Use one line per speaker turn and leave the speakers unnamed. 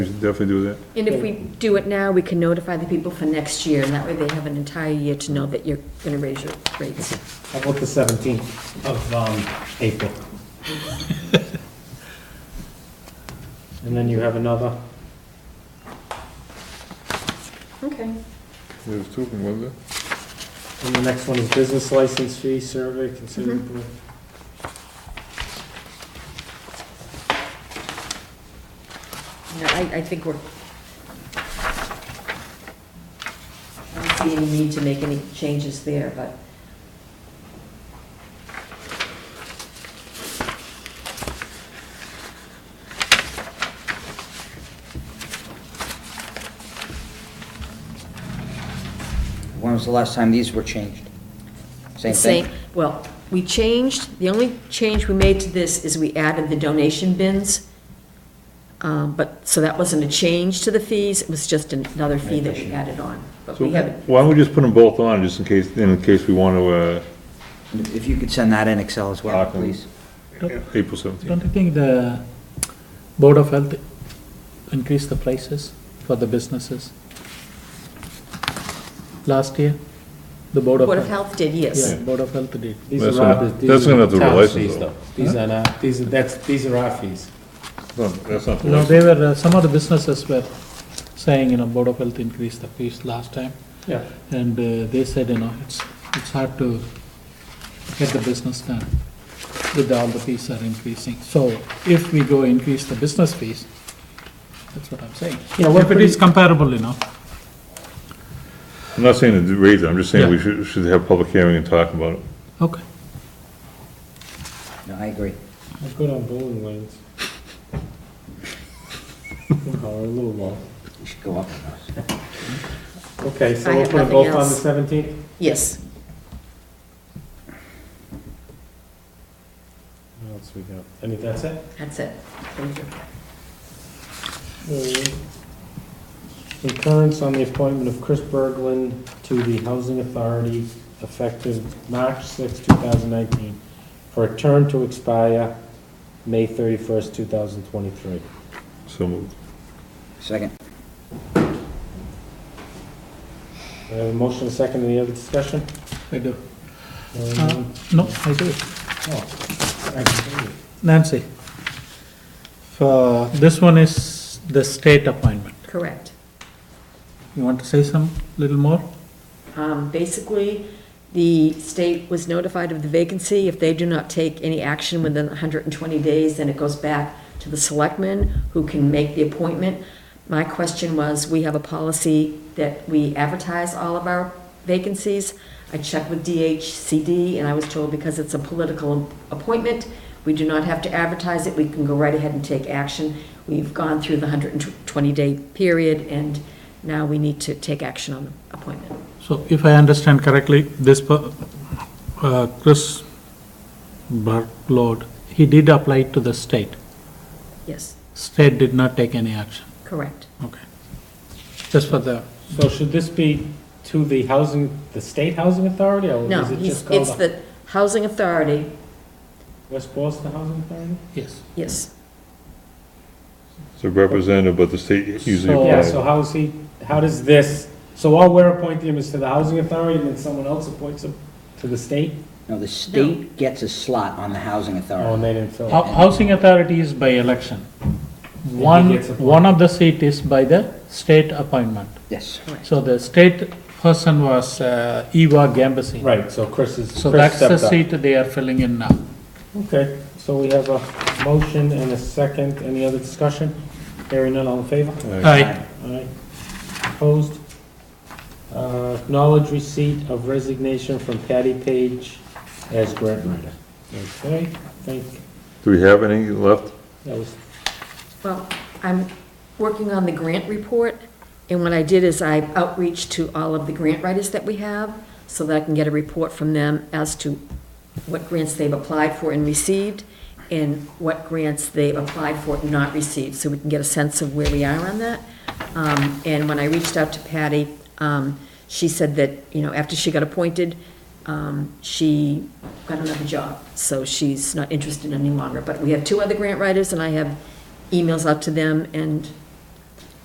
We should definitely do that.
And if we do it now, we can notify the people for next year, and that way they have an entire year to know that you're gonna raise your rates.
How about the 17th of um, April? And then you have another,
Okay.
There's two, of them, wasn't there?
and the next one is business license fee survey
Mm-hmm.
considerably.
Yeah, I, I think we're. I don't see any need to make any changes there, but.
When was the last time these were changed? Same thing?
Well, we changed, the only change we made to this is we added the donation bins. Um, but, so that wasn't a change to the fees, it was just another fee that we added on, but
So
we haven't.
Why don't we just put them both on, just in case, in case we want to, uh,
If you could send that in Excel as well,
Awesome.
please.
uh, April seventeenth.
Don't you think the Board of Health increased the prices for the businesses? Last year, the Board of.
Board of Health did, yes.
Yeah, Board of Health did.
These
That's
are our-
gonna-
these
that's
are
gonna have to be
town's
licensed,
fees,
though.
These are not, these are, that's, these are our fees.
That's not. the
No,
last
they were, uh, some of the businesses were saying, you know, Board of Health increased the fees last time.
Yeah.
And uh, they said, you know, it's, it's hard to get the business done with all the fees are increasing. So if we go increase the business fees, that's what I'm saying.
Yeah, we're
If it is comparable, you know,
one. I'm not saying to raise it, I'm just saying we
Yeah.
should, should have public hearing and talk about it.
okay.
No, I agree.
Let's go down bowling lanes. Wow, we're a little low.
You should go up on those.
Okay,
I
so we'll
have
put them
nothing
both on the
else.
17th?
Yes,
What else we got? I mean, that's it?
that's it. Thank you.
Concurrence on the appointment of Chris Berglund to the Housing Authority effective March 6, 2019, for a term to expire May 31st, 2023.
So moved.
Second.
I have a motion, a second, any other discussion?
I do.
Hearing
Uh,
none?
No, I do.
Oh, actually,
Nancy, for, this one is the state appointment.
Correct.
You want to say some, little more?
Um, Basically, the state was notified of the vacancy. If they do not take any action within 120 days, then it goes back to the selectmen, who can make the appointment. My question was, we have a policy that we advertise all of our vacancies. I checked with DHCD, and I was told because it's a political appointment, we do not have to advertise it. We can go right ahead and take action. We've gone through the 120-day period, and now we need to take action on the appointment.
So if I understand correctly, this, per- uh, Chris Bartlord, he did apply to the state.
Yes,
State did not take any action.
correct.
Okay. Just for the,
So should this be to the housing, the state housing authority, or
No,
is it
he's-
just called
it's
the
the Housing Authority,
West Boylston Housing Authority?
yes.
yes.
So representative, but the state usually
So-
Yeah,
applies.
so how's he, how does this, so all we're appointing him is to the housing authority and then someone else appoints him to the state?
No, the state gets a slot on the housing
Oh, and
authority.
they didn't fill
Hou-
it.
Housing authority is by election. One,
gets appointed.
one of the seat is by the state appointment.
Yes.
So the state person was uh, Eva Gambassi.
Right, so Chris is,
So
Chris
that's the
stepped up.
seat they are filling in now.
Okay, so we have a motion and a second. Any other discussion? Hearing none, all in favor?
Aye.
Aye. Opposed? Uh, Acknowledge receipt of resignation from Patty Page as grant writer. Okay, thank,
Do we have any left?
that was,
Well, I'm working on the grant report, and what I did is I outreach to all of the grant writers that we have, so that I can get a report from them as to what grants they've applied for and received, and what grants they've applied for and not received, so we can get a sense of where we are on that. Um, And when I reached out to Patty, um, she said that, you know, after she got appointed, um, she got another job, so she's not interested any longer. But we have two other grant writers, and I have emails out to them, and